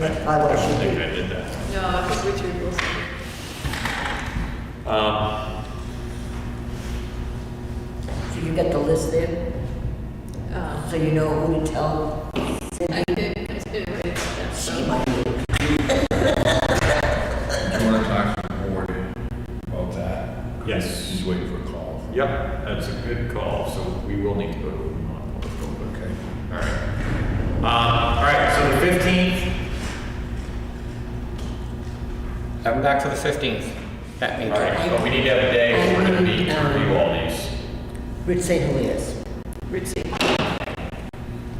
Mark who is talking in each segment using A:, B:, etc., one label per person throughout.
A: I
B: I
A: was, you
B: think
A: did.
B: I did that.
C: No, I think Richard Wilson.
B: Um,
A: So you got the list there?
C: Um,
A: So you know who to tell?
C: I did, I did write that
A: She
C: stuff.
A: might be.
D: Do you want to talk to the board about that?
B: Yes.
D: He's waiting for a call.
B: Yep, that's a good call, so we will need to go to a non-public real quick.
D: Okay.
B: All right. Um, all right, so the fifteenth,
E: Have them back for the 15th. That
B: all
E: meeting.
B: right, but we need to have a day where we're gonna meet to review all these.
A: Rich St. Heliers.
C: Richie.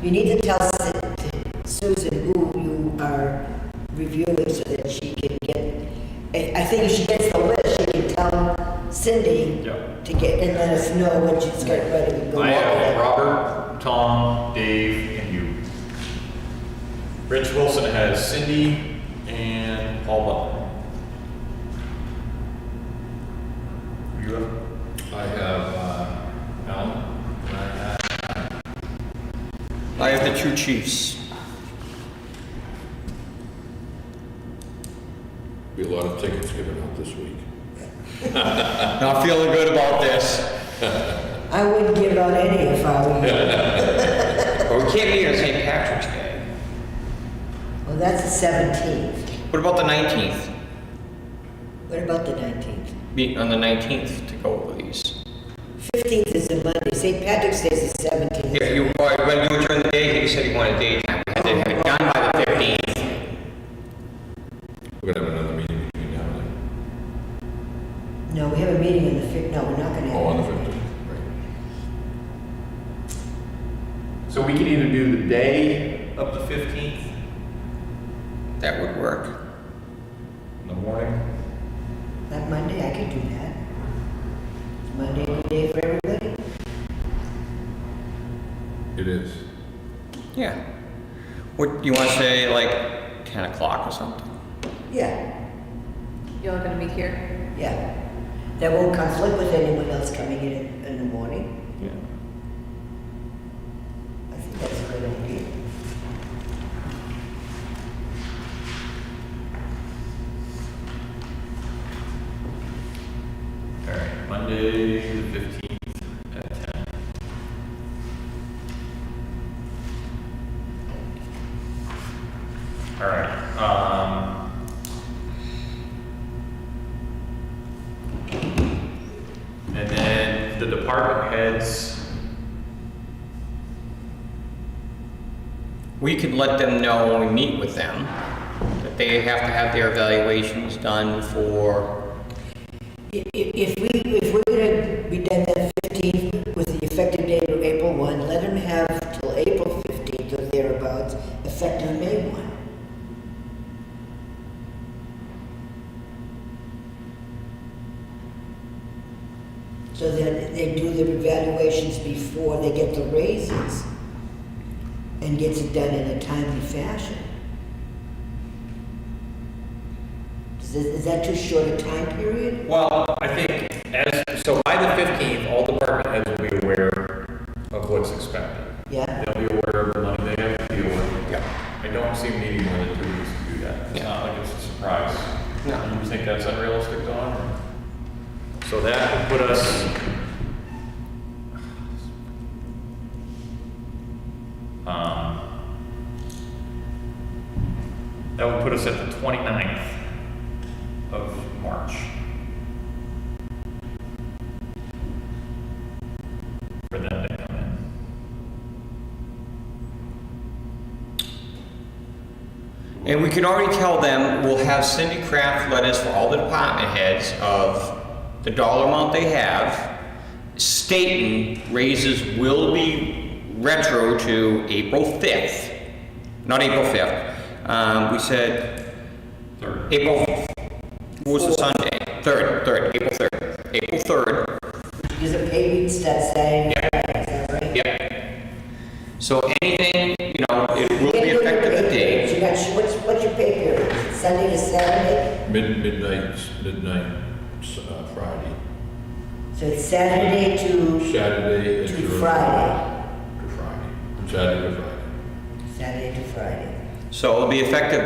A: You need to tell Su- Susan who you are reviewing so that she can get, I I think if she gets the list, she can tell Cindy
B: Yep.
A: to get, and let us know when she's got ready to go.
B: I uh, have
A: over
B: Robert, Tom, Dave, and you. Rich Wilson has Cindy and Paul Butler. You have?
D: I have, uh, Alan, and I have
E: I have the two chiefs.
D: Be a lot of tickets given out this week.
E: Not feeling good about this.
A: that. I wouldn't give out any if I were you.
E: But we can't meet on St. Patrick's Day.
A: Well, that's the 17th.
E: What about the 19th?
A: What about the 19th?
E: Meet on the 19th to go over these.
A: 15th is a Monday. St. Patrick's Day is the 17th.
E: Yeah, you, or when you were during the day, you said you wanted daytime. We had to have it done by the 15th.
D: We're gonna have another meeting between now and then.
A: No, we have a meeting on the 5th, no, we're not gonna have.
D: Oh, on the
A: it.
D: fifteenth, right.
B: So we can either do the day of the fifteenth,
E: That would work.
B: in the morning,
A: That Monday, I could do that. Monday, good day for everybody?
D: It is.
E: Yeah. What, you want to say like 10 o'clock or something?
A: Yeah.
C: Y'all gonna meet here?
A: Yeah, that won't conflict with anyone else coming in in the morning.
E: Yeah.
A: I think that's a good idea.
B: all right, Monday, the fifteenth at ten. All right, um. And then the department heads,
E: We could let them know when we meet with them that they have to have their evaluations done for,
A: I- i- If we, if we're gonna be done that fifteenth with the effective date of April one, let them have till April fifteenth or thereabouts, effective May one. So that they do their evaluations before they get the raises and gets it done in a timely fashion. Is, this- is that too short a time period?
B: Well, I think as, so by the fifteenth, all department heads will be aware of what's expected.
A: Yeah?
B: They'll be aware of the money they have to deal with.
E: Yeah.
B: I don't see them needing more than two weeks to do that. It's
E: Yeah.
B: not like it's a surprise.
E: No.
B: You think that's unrealistic, Don? So that would put us. Um. That would put us at the 29th of March. For them to come in.
E: and we can already tell them, we'll have Cindy Kraft letters for all the department heads of the dollar amount they have, stating raises will be retro to April 5th, not April 5th. Um, we said
B: Third.
E: April, what was the Sunday? 3rd, 3rd, April 3rd. April 3rd,
A: Because the pay week starts Saturday night, is that right?
E: Yep. So anything, you know, it
A: You
E: will be
A: can't do your
E: effective
A: pay
E: the
A: periods.
E: day.
A: You got, what's, what's your pay period? Sunday to Saturday?
D: Mid, midnight, midnight, s- uh, Friday.
A: So it's Saturday to,
D: Saturday is
A: To
D: your-
A: Friday.
D: To Friday. Saturday to Friday.
A: Saturday to Friday.
E: So it'll be effective